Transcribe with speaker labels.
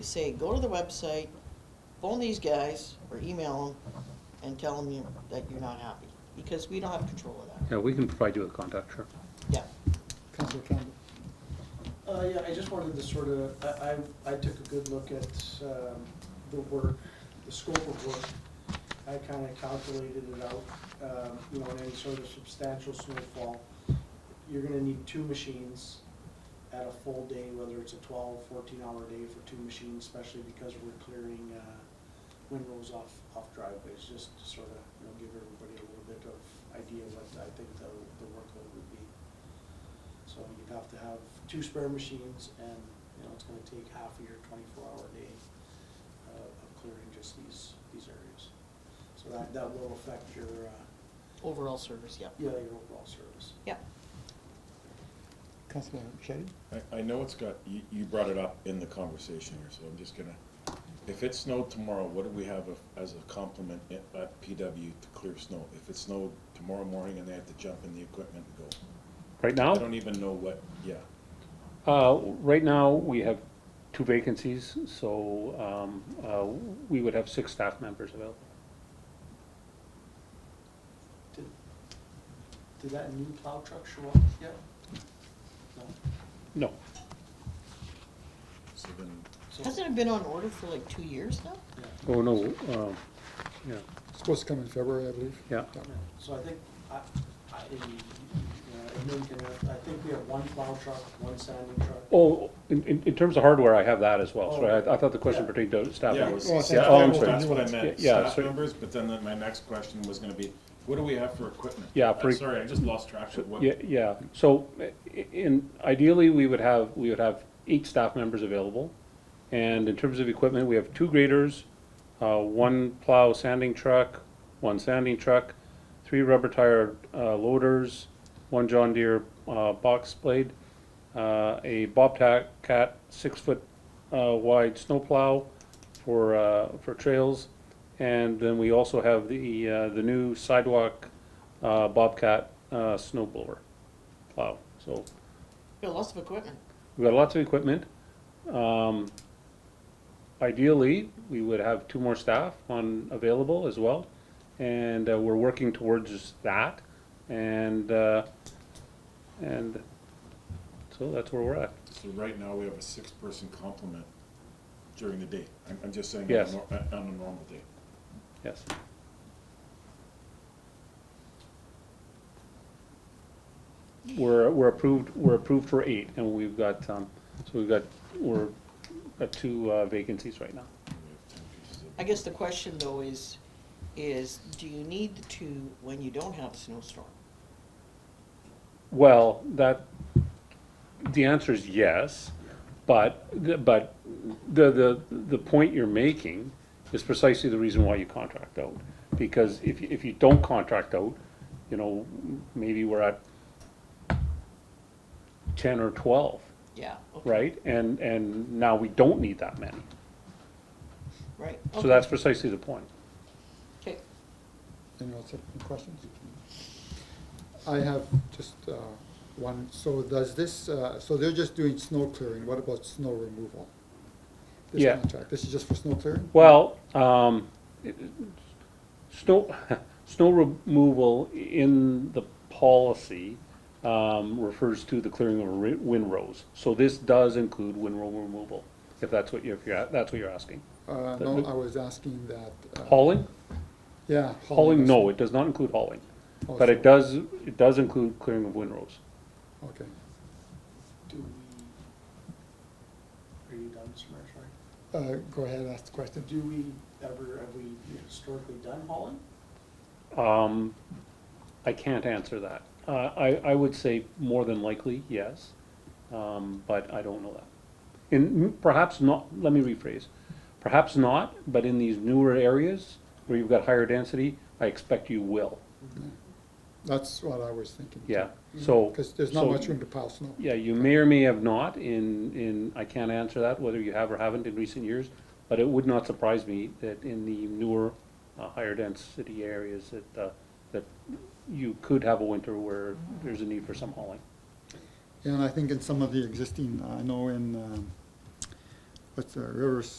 Speaker 1: say, go to the website, phone these guys, or email them, and tell them you, that you're not happy, because we don't have control of that.
Speaker 2: Yeah, we can provide you with contact, sure.
Speaker 1: Yeah,
Speaker 3: Counselor Campbell.
Speaker 4: Uh, yeah, I just wanted to sort of, I, I, I took a good look at, um, the work, the scope of work. I kinda calculated it out, um, you know, in any sort of substantial snowfall, you're gonna need two machines at a full day, whether it's a 12, 14 hour day for two machines, especially because we're clearing, uh, windrows off, off driveways, just to sort of, you know, give everybody a little bit of idea what I think the, the workload would be. So you'd have to have two spare machines and, you know, it's gonna take half of your twenty-four hour day uh, of clearing just these, these areas. So that, that will affect your, uh,
Speaker 1: overall service, yeah.
Speaker 4: yeah, your overall service.
Speaker 1: Yeah,
Speaker 3: Counselor Shetty?
Speaker 5: I, I know it's got, you, you brought it up in the conversation here, so I'm just gonna, if it snowed tomorrow, what do we have a- as a complement at, at PW to clear snow? If it snowed tomorrow morning and they had to jump in the equipment and go,
Speaker 2: Right
Speaker 5: I
Speaker 2: now,
Speaker 5: don't even know what, yeah,
Speaker 2: uh, right now, we have two vacancies, so, um, uh, we would have six staff members available.
Speaker 4: Did, did that new plow truck show up yet? No,
Speaker 2: No,
Speaker 5: so then,
Speaker 4: so,
Speaker 1: Hasn't it been on order for like two years now?
Speaker 4: yeah,
Speaker 2: oh, no, um, yeah,
Speaker 3: Supposed to come in February, I believe.
Speaker 2: yeah,
Speaker 4: yeah. so I think, I, I, you know, admin can- I think we have one plow truck, one sanding truck.
Speaker 2: oh, in, in, in terms of hardware, I have that as well, sorry, I, I thought the question
Speaker 4: Yeah.
Speaker 2: pertained to staff
Speaker 5: yeah, it
Speaker 2: members.
Speaker 5: was
Speaker 3: Well, I think
Speaker 5: staff
Speaker 2: oh, I'm
Speaker 5: members,
Speaker 2: sorry.
Speaker 5: that's what I meant,
Speaker 2: Yeah, yeah,
Speaker 5: staff
Speaker 2: so-
Speaker 5: members, but then the- my next question was gonna be, what do we have for equipment?
Speaker 2: Yeah,
Speaker 5: I'm
Speaker 2: for-
Speaker 5: Sorry, I just lost track of what,
Speaker 2: Yeah, yeah, so, i- in, ideally, we would have, we would have eight staff members available. And in terms of equipment, we have two graders, uh, one plow sanding truck, one sanding truck, three rubber tire, uh, loaders, one John Deere, uh, box blade, uh, a Bobcat cat six-foot, uh, wide snowplow for, uh, for trails. And then we also have the, uh, the new sidewalk, uh, Bobcat, uh, snow blower plow. So
Speaker 1: Got lots of equipment.
Speaker 2: We've got lots of equipment. Um, Ideally, we would have two more staff on available as well, and uh, we're working towards that. And, uh, and so that's where we're at.
Speaker 5: so right now, we have a six-person complement during the day. I'm, I'm just saying, on a
Speaker 2: Yes.
Speaker 5: nor- on a normal day.
Speaker 2: Yes. We're, we're approved, we're approved for eight, and we've got, um, so we've got, we're, got two uh, vacancies right now.
Speaker 5: We have ten pieces of-
Speaker 1: I guess the question though is, is do you need the two when you don't have a snowstorm?
Speaker 2: Well, that, the answer is yes, but, the- but the, the, the point you're making is precisely the reason why you contract out. Because if, you- if you don't contract out, you know, maybe we're at ten or twelve,
Speaker 1: Yeah. okay,
Speaker 2: right? And, and now we don't need that many.
Speaker 1: Right.
Speaker 2: So that's precisely the point.
Speaker 1: Okay,
Speaker 3: Anyone else have any questions? I have just uh, one, so does this, uh, so they're just doing snow clearing, what about snow removal? This
Speaker 2: Yeah.
Speaker 3: contract, this is just for snow clearing?
Speaker 2: Well, um, it- it- snow, snow removal in the policy, um, refers to the clearing of ri- windrows. So this does include windrow removal, if that's what you're, if you're, a- that's what you're asking.
Speaker 3: Uh, No, I was asking that. uh,
Speaker 2: Hauling?
Speaker 3: Yeah.
Speaker 2: Hauling,
Speaker 3: does-
Speaker 2: no, it does not include hauling,
Speaker 3: Oh,
Speaker 2: but
Speaker 3: so-
Speaker 2: it does, it does include clearing of windrows.
Speaker 3: Okay.
Speaker 4: Do we, are you done, Mr. Mayor, sorry?
Speaker 3: Uh, Go ahead, ask the question.
Speaker 4: Do we ever, have we historically done hauling?
Speaker 2: Um, I can't answer that. Uh, I, I would say more than likely, yes, um, but I don't know that. And m- perhaps not, let me rephrase, perhaps not, but in these newer areas where you've got higher density, I expect you will,
Speaker 3: That's what I was thinking.
Speaker 2: yeah, so.
Speaker 3: Because Mm-hmm. there's not
Speaker 2: so-
Speaker 3: much room to pile snow.
Speaker 2: Yeah, you may or may have not in, in, I can't answer that, whether you have or haven't in recent years, but it would not surprise me that in the newer, uh, higher density areas that, uh, that you could have a winter where there's a need for some hauling.
Speaker 3: uh, And I think in some of the existing, I know in um, what's the, Rivers